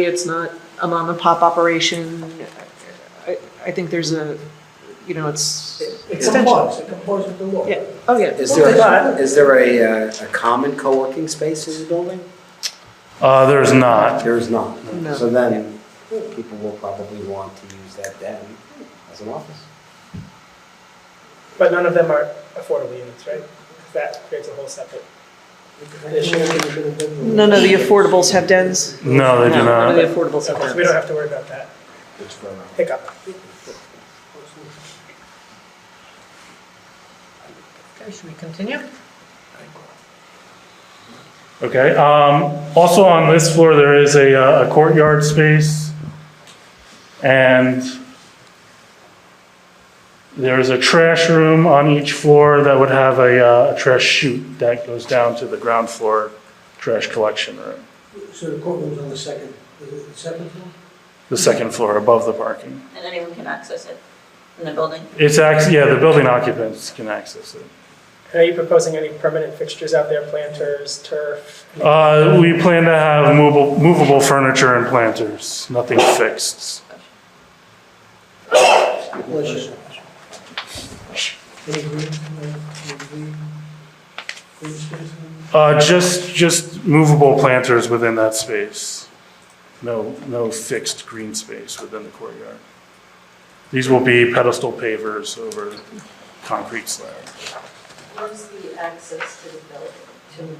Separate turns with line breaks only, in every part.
It's not a mom and pop operation. I, I think there's a, you know, it's.
It complies, it complies with the law.
Yeah, oh, yeah.
Is there,
But-
a- is there a, uh, a common co-working space in the building?
Uh, there's not.
There is not.
No.
So then, people will probably want to use that then as an office.
But none of them are affordable units, right? 'Cause That creates a whole separate issue.
None of the affordables have dens?
No, they do
None
not.
of the affordables
So
have dens.
we don't have to worry about that
It's for, uh,
hiccup.
Okay, should we continue?
Okay, um, also on this floor, there is a uh, a courtyard space. And there is a trash room on each floor that would have a, uh, a trash chute that goes down to the ground floor trash collection room.
So the courtroom's on the second, is it the second floor?
The second floor above the parking.
and anyone can access it in the building.
It's actually, yeah, the building occupants can access it.
And Are you proposing any permanent fixtures out there, planters, turf?
Uh, we plan to have movable, movable furniture and planters, nothing fixed.
Bless you. Any green, uh, any green, green space?
Uh, just, just movable planters within that space. No, no fixed green space within the courtyard. These will be pedestal pavers over concrete slab.
Where's the access to the building,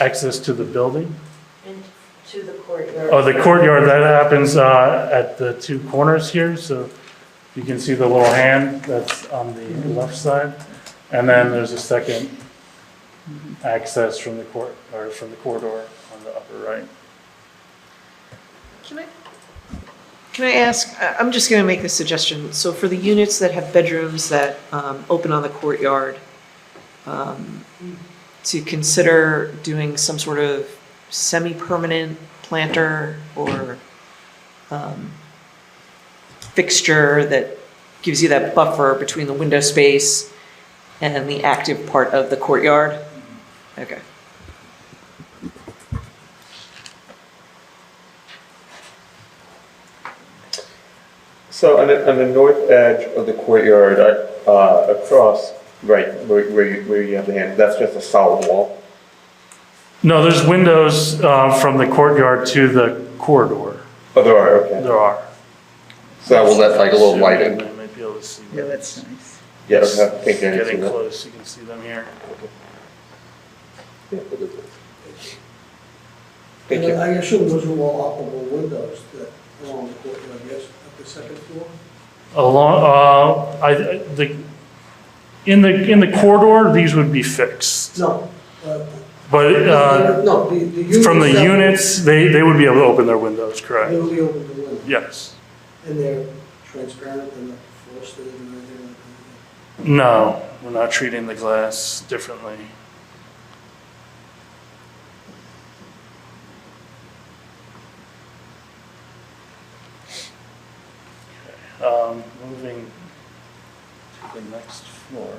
Access to the building?
to, to the courtyard?
Oh, the courtyard, that happens, uh, at the two corners here, so you can see the little hand that's on the left side. And then there's a second access from the court, or from the corridor on the upper right.
Can I, can I ask, I- I'm just going to make a suggestion. So for the units that have bedrooms that um, open on the courtyard, um, to consider doing some sort of semi-permanent planter or um, fixture that gives you that buffer between the window space and the active part of the courtyard? Okay.
So on the, on the north edge of the courtyard, uh, uh, across, right, where, where you, where you have the hand, that's just a solid wall.
No, there's windows uh, from the courtyard to the corridor.
Oh, there are, okay.
There are.
So that will let like a little light in.
I might be able to see.
Yeah,
them.
that's nice.
Yeah, I don't think I can see
Getting
that.
close, you can see them here.
Yeah, look at this. Thank you.
I assume those are all operable windows that are on the courtyard, yes, at the second floor?
Along, uh, I, the, in the, in the corridor, these would be fixed.
No. uh,
But uh,
No, the, the units.
from the
that-
units, they, they would be able to open their windows,
They
correct?
will be open to windows.
Yes.
And they're transparent and not frosted and anything like that.
No, we're not treating the glass differently. Okay, Um, moving to the next floor.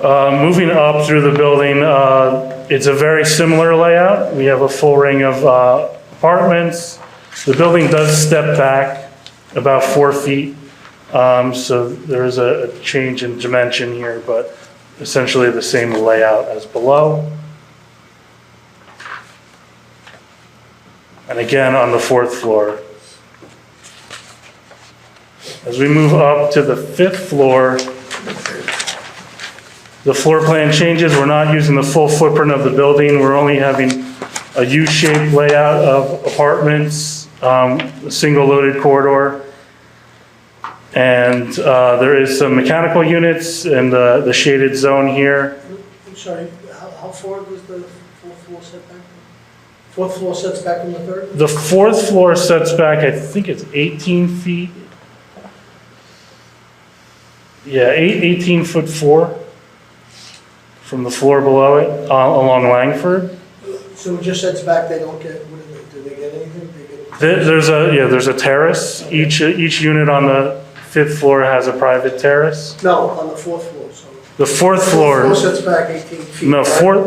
Uh, moving up through the building, uh, it's a very similar layout. We have a full ring of uh, apartments. The building does step back about four feet. Um, So there is a a change in dimension here, but essentially the same layout as below. And again, on the fourth floor. As we move up to the fifth floor, the floor plan changes. We're not using the full footprint of the building. We're only having a U-shaped layout of apartments, um, a single loaded corridor. And uh, there is some mechanical units in the the shaded zone here.
I'm sorry, how, how far was the fourth floor setback? Fourth floor sets back from the third?
The fourth floor sets back, I think it's 18 feet. Yeah, eight- 18 foot four from the floor below it, uh, along Langford.
So it just sets back, they don't get, what do they, do they get anything? They get-
There- There's a, yeah, there's a terrace. Each, each unit on the fifth floor has a private terrace.
No, on the fourth floor, so.
The fourth
Fourth
floor,
Floor sets back eighteen feet.
no,
right?
fourth,